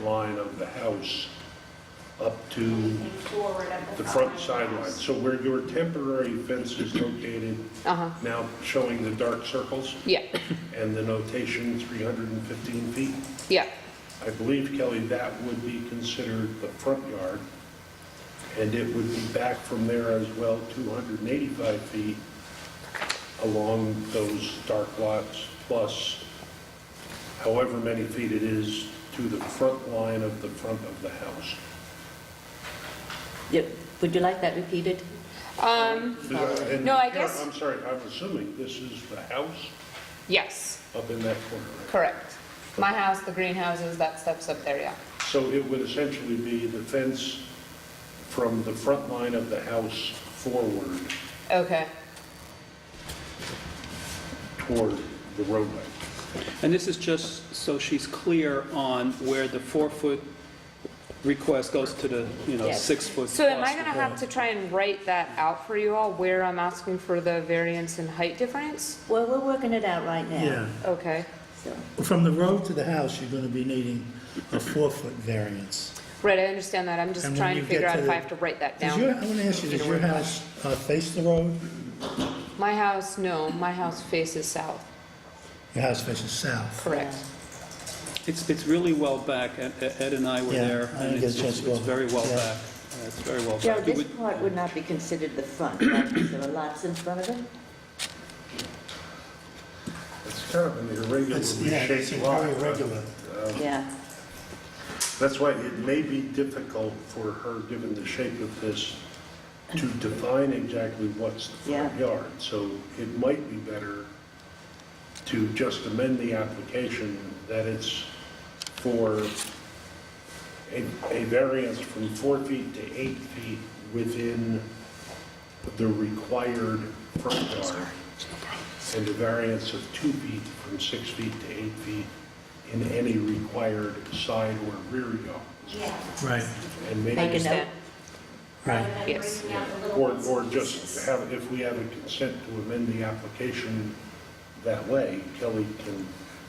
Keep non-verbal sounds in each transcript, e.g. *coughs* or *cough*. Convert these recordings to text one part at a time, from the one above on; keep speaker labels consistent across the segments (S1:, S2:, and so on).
S1: line of the house up to
S2: and forward of the.
S1: the front sideline. So where your temporary fence is located,
S3: Uh-huh,
S1: now showing the dark circles
S3: yeah,
S1: and the notation 315 feet,
S3: yeah,
S1: I believe, Kelly, that would be considered the front yard, and it would be back from there as well, 285 feet along those dark lots, plus however many feet it is to the front line of the front of the house.
S4: Yeah, Would you like that repeated?
S3: um,
S1: And
S3: No, I
S1: here,
S3: guess-
S1: I'm sorry, I'm assuming this is the house
S3: yes,
S1: up in that corner, right?
S3: correct. My house, the greenhouses, that steps up there, yeah.
S1: So it would essentially be the fence from the front line of the house forward
S3: Okay,
S1: toward the roadway.
S5: And this is just so she's clear on where the four-foot request goes to the, you know,
S4: Yes.
S5: six-foot.
S3: so am
S5: plus
S3: I
S5: the
S3: gonna have
S5: wall.
S3: to try and write that out for you all, where I'm asking for the variance in height difference?
S4: Well, we're working it out right now.
S6: Yeah,
S3: Okay,
S4: So,
S6: from the road to the house, you're gonna be needing a four-foot variance.
S3: right, I understand that, I'm just
S6: And when
S3: trying to
S6: you
S3: figure
S6: get
S3: out
S6: to
S3: if I
S6: the-
S3: have to write that
S6: Does your,
S3: down.
S6: I wanna ask you, does your house uh, face the road?
S3: My house, no, my house faces south,
S6: Your house faces south.
S3: correct.
S5: It's, it's really well back. Ed Ed and I were
S6: Yeah,
S5: there.
S6: I
S5: and
S6: didn't get a
S5: it's-
S6: chance to go.
S5: It's very well
S6: Yeah.
S5: back. Yeah, It's very well
S4: Joe,
S5: back. It
S4: this
S5: would-
S4: part would not be considered the front, right? 'Cause There are lots in front of it?
S1: It's kind of an irregularly
S6: It's, yeah, it's
S1: shaped lot.
S6: very irregular.
S1: Oh.
S4: Yeah.
S1: That's why it may be difficult for her, given the shape of this, to define exactly what's the front
S4: Yeah.
S1: yard. So it might be better to just amend the application that it's for a, a variance from four feet to eight feet within the required front yard. And a variance of two feet from six feet to eight feet in any required side or rear yard.
S2: Yeah.
S6: Right,
S1: And
S4: Make
S1: maybe,
S4: a note.
S3: Understand.
S2: Rather
S6: right.
S2: than
S3: Yes.
S2: breaking out the little
S1: or,
S2: bits
S1: or
S2: and pieces.
S1: just have, if we have a consent to amend the application that way, Kelly can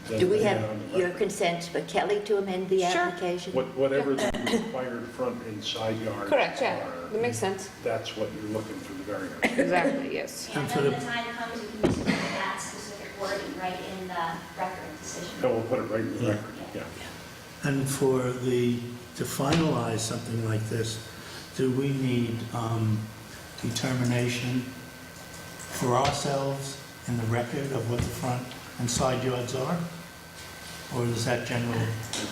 S1: then.
S4: Do we
S1: lay
S4: have
S1: down the
S4: your
S1: record.
S4: consent for Kelly to amend the
S3: Sure.
S4: application?
S1: What- Whatever
S4: *coughs*
S1: the required front and side yards
S3: Correct, yeah, that
S1: are,
S3: makes sense,
S1: that's what you're looking for the variance.
S3: exactly, yes.
S2: And
S6: And for
S2: then
S6: the-
S2: when the time comes, you can just put that specific wording right in the record
S1: And
S2: decision.
S1: we'll put it right in the
S6: Yeah.
S1: record, yeah.
S6: And for the, to finalize something like this, do we need um, determination for ourselves in the record of what the front and side yards are? Or is that general?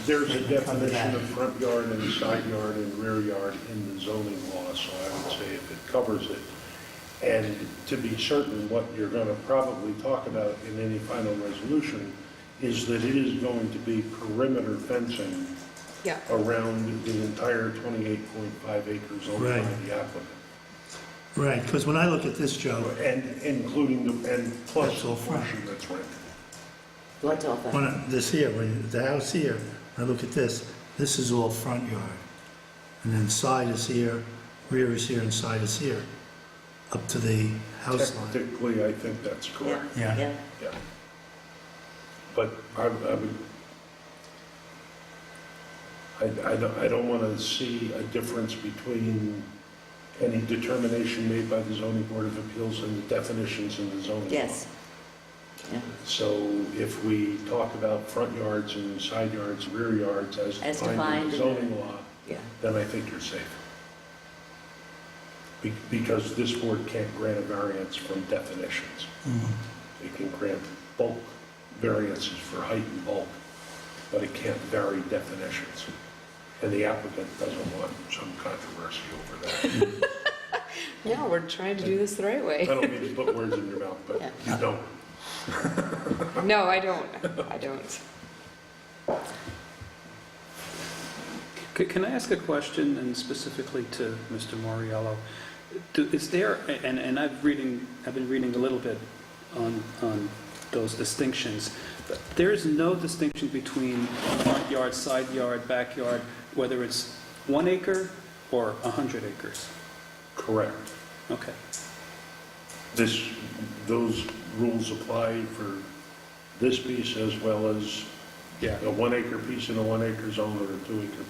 S1: There's a
S6: They can cover
S1: definition
S6: that.
S1: of front yard and side yard and rear yard in the zoning law, so I would say if it covers it. And to be certain, what you're going to probably talk about in any final resolution is that it is going to be perimeter fencing
S3: Yeah,
S1: around the entire 28.5 acres owned by
S6: Right.
S1: the applicant.
S6: Right, because when I look at this, Joe,
S1: And including the, and plus
S6: That's
S1: the
S6: all front.
S1: portion that's rented.
S4: What's all
S6: When
S4: that?
S6: I- this here, when the house here, I look at this, this is all front yard. And then side is here, rear is here, and side is here, up to the house line.
S1: Technically, I think that's correct.
S6: Yeah.
S1: Yeah. But I, I would, I, I don't, I don't want to see a difference between any determination made by the zoning board of appeals and the definitions in the zoning law.
S4: Yes. Yeah.
S1: So if we talk about front yards and side yards, rear yards as
S4: As
S1: defined in the
S4: defined in the-
S1: zoning law,
S4: Yeah.
S1: then I think you're safe. Be- Because this board can't grant a variance from definitions.
S6: Mhm.
S1: It can grant bulk variances for height and bulk, but it can't vary definitions. And the applicant doesn't want some controversy over that.
S3: no, we're trying to do this the right
S1: I
S3: way.
S1: don't mean to put words in your mouth, but you don't.
S3: No, I don't, I don't.
S5: Ca- Can I ask a question, and specifically to Mr. Moriello? Do- Is there, and, and I've reading, I've been reading a little bit on, on those distinctions. There is no distinction between front yard, side yard, backyard, whether it's one acre or 100 acres.
S1: Correct.
S5: Okay.
S1: This, those rules apply for this piece as well as
S5: Yeah.
S1: a one acre piece in a one acre zone or a two acre